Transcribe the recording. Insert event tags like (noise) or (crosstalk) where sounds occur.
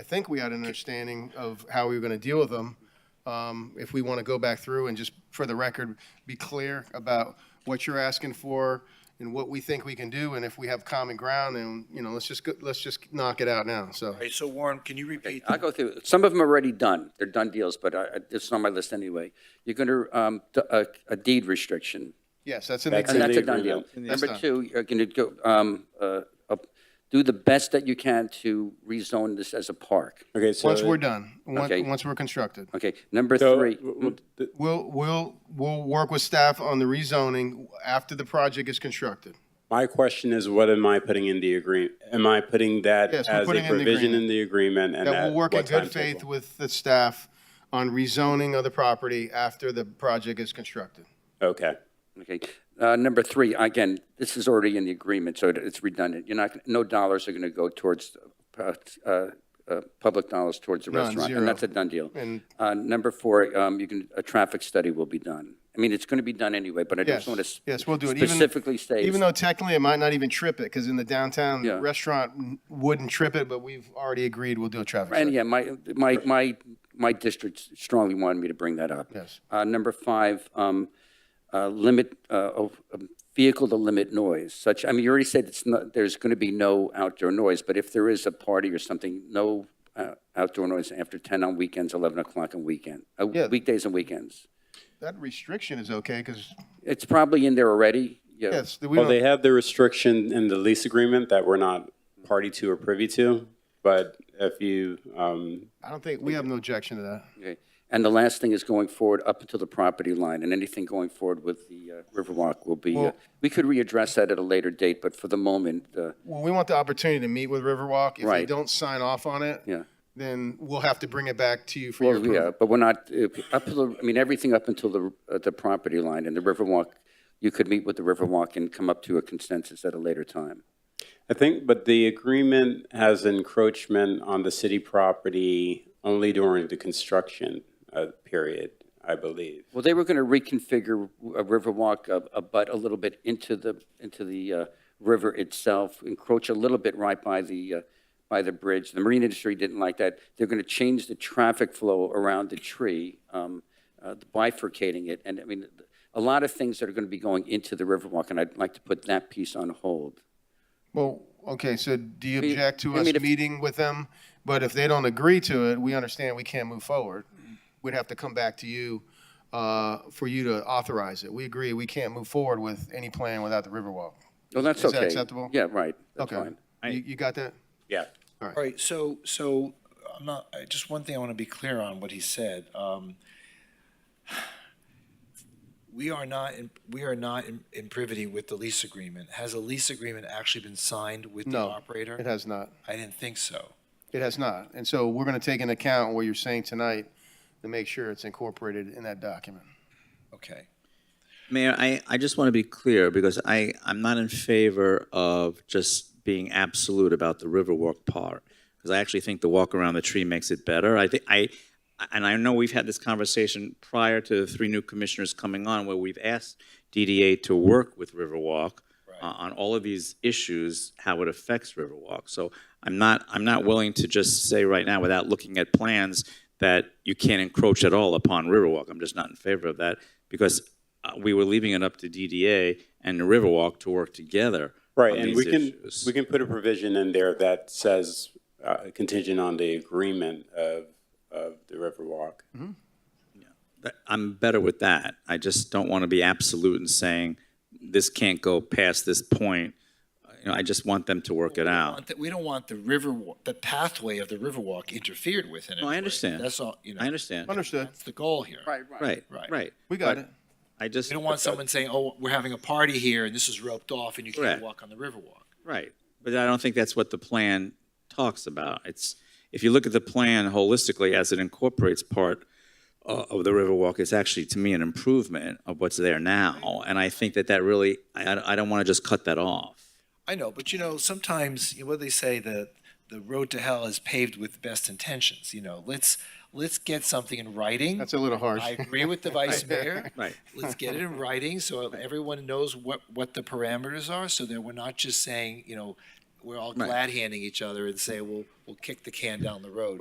I think we had an understanding of how we were going to deal with them. Um, If we want to go back through and just, for the record, be clear about what you're asking for and what we think we can do, and if we have common ground, and, you know, let's just, go- let's just knock it out now, so. All right, so Warren, can you repeat? I'll go through, some of them are already done, they're done deals, but I, I- it's on my list anyway. You're going to, uh, a deed restriction, Yes, that's in the and that's a agreement. done deal. Number done. two, you're going to go, um, uh, up- do the best that you can to rezone this as a park, Okay, so. Once we're done, once, Okay. once we're constructed. okay? Number so, three, w- Hmm. w- th- We'll, we'll, we'll work with staff on the rezoning after the project is constructed. My question is, what am I putting in the agreement? Am I putting that Yes, we're as a putting in the provision agreement. in the agreement and That at we'll work in what good faith timetable? with the staff on rezoning of the property after the project is constructed. Okay, okay? Uh, number three, again, this is already in the agreement, so it- it's redundant. You're not, no dollars are going to go towards, uh, uh, uh, public dollars towards the None, restaurant, zero. and that's a done deal. And Uh, Number four, um, you can, a traffic study will be done. I mean, it's going to be done anyway, but I yes, just want to. yes, we'll do it. Even- Specifically state. Even though technically it might not even trip it, because in the downtown Yeah. restaurant n- wouldn't trip it, but we've already agreed we'll do a traffic And study. yeah, my, my, my, my district strongly wanted me to bring that up. Yes. Uh, Number five, um, uh, limit, uh, of um, vehicle to limit noise, such, I mean, you already said it's not, there's going to be no outdoor noise, but if there is a party or something, no uh, outdoor noise after 10 on weekends, 11 o'clock on weekend, uh, Yeah. weekdays and weekends. That restriction is okay, because, It's probably in there already, yeah. yes, we well, don't, they have the restriction in the lease agreement that we're not party to or privy to, but if you, um, I don't think, we have no objection to that. Okay, and the last thing is going forward up until the property line, and anything going forward with the uh, Riverwalk will be, uh, Well- we could readdress that at a later date, but for the moment, uh, Well, we want the opportunity to meet with Riverwalk. If they Right. don't sign off on it, yeah. then we'll have to bring it back to you for your Well, yeah, approval. but we're not, uh, up to the, I mean, everything up until the, uh, the property line and the Riverwalk, you could meet with the Riverwalk and come up to a consensus at a later time. I think, but the agreement has encroachment on the city property only during the construction, uh, period, I believe. Well, they were going to reconfigure a Riverwalk, a, a butt a little bit into the, into the uh, river itself, encroach a little bit right by the, uh, by the bridge. The marine industry didn't like that. They're going to change the traffic flow around the tree, um, uh, bifurcating it. And I mean, a lot of things that are going to be going into the Riverwalk, and I'd like to put that piece on hold. Well, okay, so do you We- object to I us mean, if- meeting with them? But if they don't agree to it, we understand we can't move forward. We'd have to come back to you uh, for you to authorize it. We agree, we can't move forward with any plan without the Riverwalk. Well, Oh, that's okay. Is that acceptable? Yeah, right. That's Okay. fine. You you got that? Yeah. All right, so, so, I'm not, I- just one thing I want to be clear on what he said. Um, We are not, in- we are not in in privity with the lease agreement. Has a lease agreement actually been signed with the No, operator? It has not. I didn't think so. It has not. And so we're going to take into account what you're saying tonight to make sure it's incorporated in that document. Okay. Mayor, I, I just want to be clear, because I, I'm not in favor of just being absolute about the Riverwalk part, because I actually think the walk around the tree makes it better. I think, I, and I know we've had this conversation prior to the three new commissioners coming on, where we've asked DDA to work with Riverwalk uh, on all of these issues, how it affects Riverwalk. So I'm not, I'm not willing to just say right now, without looking at plans, that you can't encroach at all upon Riverwalk. I'm just not in favor of that, because uh, we were leaving it up to DDA and the Riverwalk to work together Right, on and these we can, issues. we can put a provision in there that says uh, contingent on the agreement of, of the Riverwalk. But I'm better with that. I just don't want to be absolute in saying this can't go past this point. You know, I just want them to work it out. want that- We don't want the river, wa- the pathway of the Riverwalk interfered with in any No, I way. understand. That's all, you know. I understand. Understood. That's the goal here. Right. Right, Right. right. We got But it. I just. We don't want someone saying, oh, we're having a party here and this is roped off and you can't Correct. walk on the Riverwalk. Right, but I don't think that's what the plan talks about. It's, if you look at the plan holistically as it incorporates part uh, of the Riverwalk, it's actually, to me, an improvement of what's there now. And I think that that really, I, I- I don't want to just cut that off. I know, but you know, sometimes you know, what they say the the road to hell is paved with best intentions. You know, let's let's get something in writing. That's a little harsh. I agree with the (laughs) vice mayor. Right. Let's get it in writing so everyone knows what what the parameters are, so that we're not just saying you know we're all glad handing each other and say, well, we'll kick the can down the road.